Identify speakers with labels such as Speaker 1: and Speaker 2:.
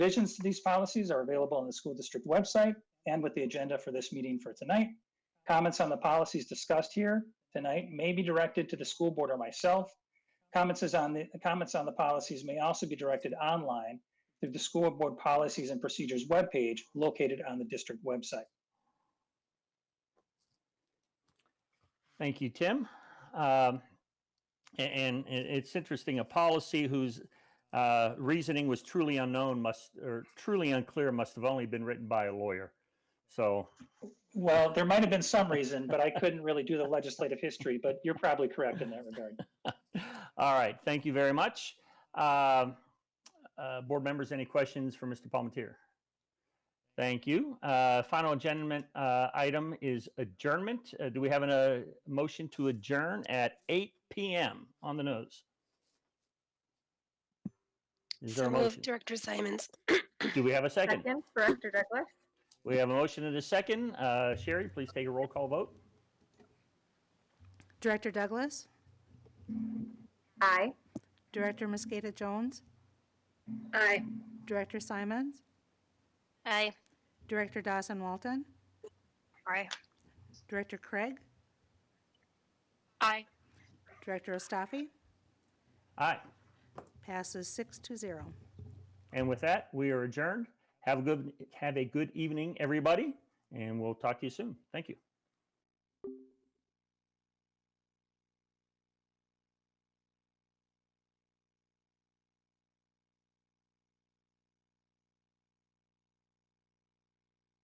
Speaker 1: Revisions to these policies are available on the school district website and with the agenda for this meeting for tonight. Comments on the policies discussed here tonight may be directed to the school board or myself. Comments is on the, comments on the policies may also be directed online through the school board policies and procedures webpage located on the district website.
Speaker 2: Thank you, Tim. Um, a- and, it- it's interesting. A policy whose uh, reasoning was truly unknown must or truly unclear must have only been written by a lawyer. So
Speaker 1: Well, there might have been some reason, but I couldn't really do the legislative history, but you're probably correct in that regard.
Speaker 2: All right, thank you very much. Um, uh, Board members, any questions for Mr. Palmetier? Thank you. Uh, Final adjournment uh, item is adjournment. Uh, Do we have a motion to adjourn at 8 PM on the nose? Is there
Speaker 3: So
Speaker 2: a
Speaker 3: moved,
Speaker 2: motion?
Speaker 3: Director Simons.
Speaker 2: Do we have a second?
Speaker 4: Second, Director Douglas.
Speaker 2: We have a motion and a second. Uh, Sherry, please take a roll call vote.
Speaker 5: Director Douglas,
Speaker 4: Aye.
Speaker 5: Director
Speaker 3: Mm-hmm.
Speaker 5: Mosqueda Jones,
Speaker 4: Aye.
Speaker 5: Director Simons,
Speaker 3: Aye.
Speaker 5: Director Dawson Walton,
Speaker 3: Aye.
Speaker 5: Director Craig,
Speaker 3: Aye.
Speaker 5: Director Ostafi,
Speaker 2: Aye.
Speaker 5: passes six to zero.
Speaker 2: And with that, we are adjourned. Have a good have a good evening, everybody, and we'll talk to you soon. Thank you.